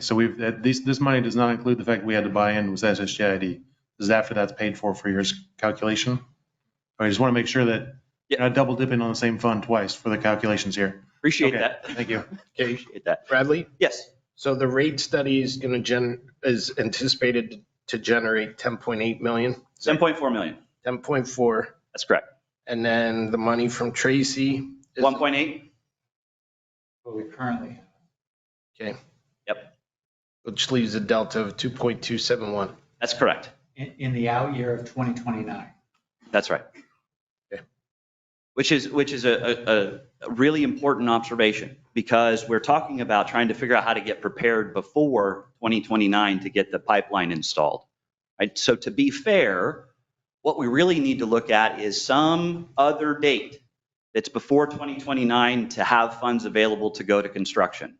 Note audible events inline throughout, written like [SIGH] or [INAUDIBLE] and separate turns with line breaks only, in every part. So we've, that- these, this money does not include the fact we had to buy in with SSJID. This is after that's paid for for your calculation. I just want to make sure that you're not double dipping on the same fund twice for the calculations here.
Appreciate
Okay,
that.
Thank you.
Okay,
Appreciate that.
Bradley,
Yes.
so the rate study is gonna gen, is anticipated to generate 10.8 million,
7.4 million.
10.4,
That's correct.
and then the money from Tracy. is-
1.8.
What we currently,
Okay.
Yep.
Which leaves a delta of 2.271.
That's correct.
in, in the out year of 2029.
That's right.
Okay.
Which is, which is a, a, a really important observation because we're talking about trying to figure out how to get prepared before 2029 to get the pipeline installed. Right? So to be fair, what we really need to look at is some other date that's before 2029 to have funds available to go to construction.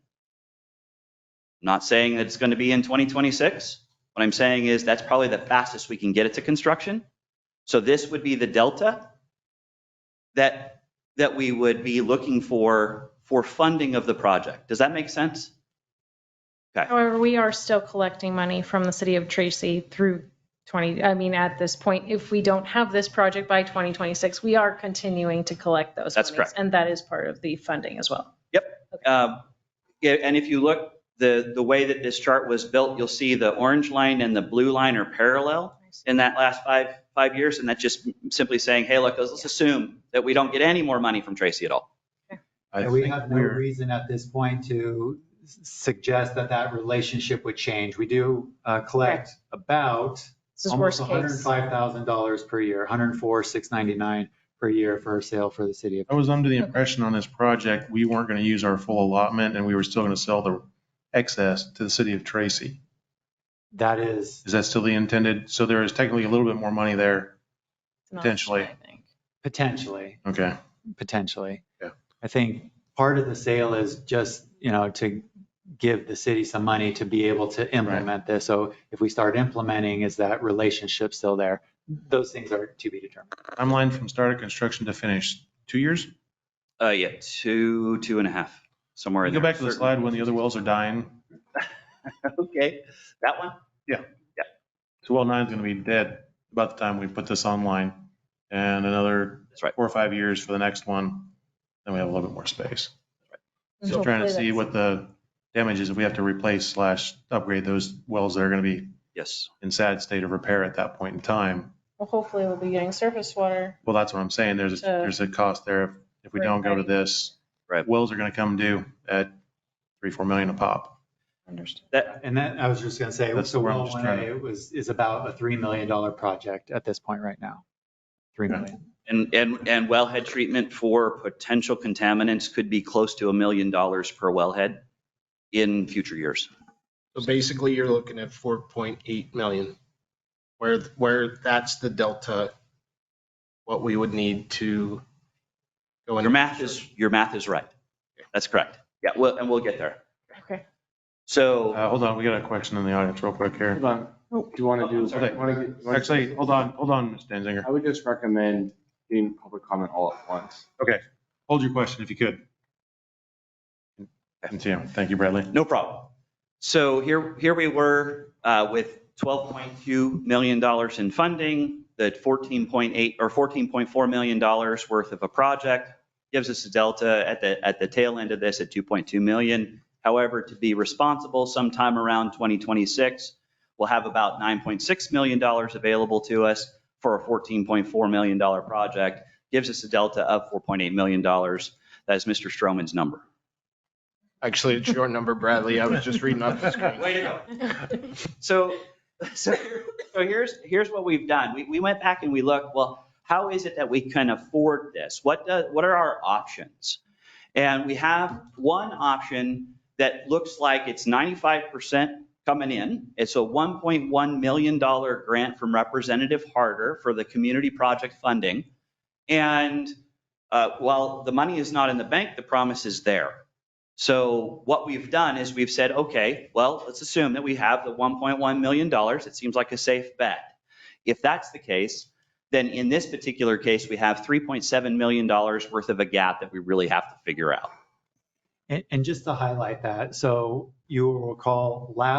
Not saying that it's going to be in 2026. What I'm saying is that's probably the fastest we can get it to construction. So this would be the delta that, that we would be looking for, for funding of the project. Does that make sense?
However, we are still collecting money from the city of Tracy through 20, I mean, at this point, if we don't have this project by 2026, we are continuing to collect those.
That's
monies,
correct.
And that is part of the funding as well.
Um, yeah, And if you look, the, the way that this chart was built, you'll see the orange line and the blue line are parallel in that last five, five years. And that's just simply saying, hey, look, let's assume that we don't get any more money from Tracy at all.
I
And we
think
have no
we're-
reason at this point to s- suggest that that relationship would change. We do uh, collect about
This is
almost
worst case.
$105,000 per year, 104,699 per year for a sale for the city of.
I was under the
Okay.
impression on this project, we weren't going to use our full allotment and we were still going to sell the excess to the city of Tracy.
That is,
Is that still the intended? So there is technically a little bit more money there.
It's not
potentially.
I think.
potentially,
Okay.
potentially.
Yeah.
I think part of the sale is just, you know, to give the city some money to be able to implement this. So if we start implementing, is that relationship still there? Those things are to be determined.
Timeline from start of construction to finish, two years?
Uh, yeah, two, two and a half, somewhere in
Go
there.
back to the
Certainly.
slide when the other wells are dying.
[LAUGHS] Okay, that one?
So well nine's gonna be dead about the time we put this online and another
That's right.
four or five years for the next one. Then we have a little bit more space. Still trying to
Hopefully
see
that's-
what the damage is if we have to replace slash upgrade those wells that are gonna be
Yes.
in sad state of repair at that point in time.
Well, hopefully we'll be getting surface water.
Well, that's what I'm saying. There's,
So-
there's a cost there. if If we don't go to this,
Right.
wells are gonna come due at three, four million a pop.
Understood.
And then I was just gonna say,
That's
so
where I'm
well,
just
one
trying
A was, is about a $3 million project at this point right now. 3
Yeah.
million.
And, and, and wellhead treatment for potential contaminants could be close to a million dollars per wellhead in future years.
So basically, you're looking at 4.8 million, where, where that's the delta, what we would need to go in.
Your math is, your math is right. That's correct. Yeah, well, and we'll get there.
Okay.
So,
Uh, hold on, we got a question in the audience real quick here.
Hold on. Do you want to do?
sorry.
wanna get- wanna-
Actually, hold on, hold on, Ms. Danziger.
I would just recommend doing public comment all at once.
Hold your question if you could. Continue. Thank you, Bradley.
no problem. So here, here we were uh, with $12.2 million in funding, the 14.8 or $14.4 million worth of a project gives us a delta at the, at the tail end of this at 2.2 million. However, to be responsible sometime around 2026, we'll have about $9.6 million available to us for a $14.4 million project, gives us a delta of $4.8 million. That is Mr. Stroman's number.
Actually, it's your number, Bradley. I was just reading off the screen.
Way to go.
[LAUGHS]
So, so, so here's, here's what we've done. We, we went back and we looked, well, how is it that we can afford this? What, do- what are our options? And we have one option that looks like it's 95% coming in. It's a $1.1 million grant from Representative Harder for the community project funding. And uh, while the money is not in the bank, the promise is there. So what we've done is we've said, okay, well, let's assume that we have the 1.1 million dollars. It seems like a safe bet. If that's the case, then in this particular case, we have 3.7 million dollars worth of a gap that we really have to figure out.
And, and just to highlight that, so you will recall last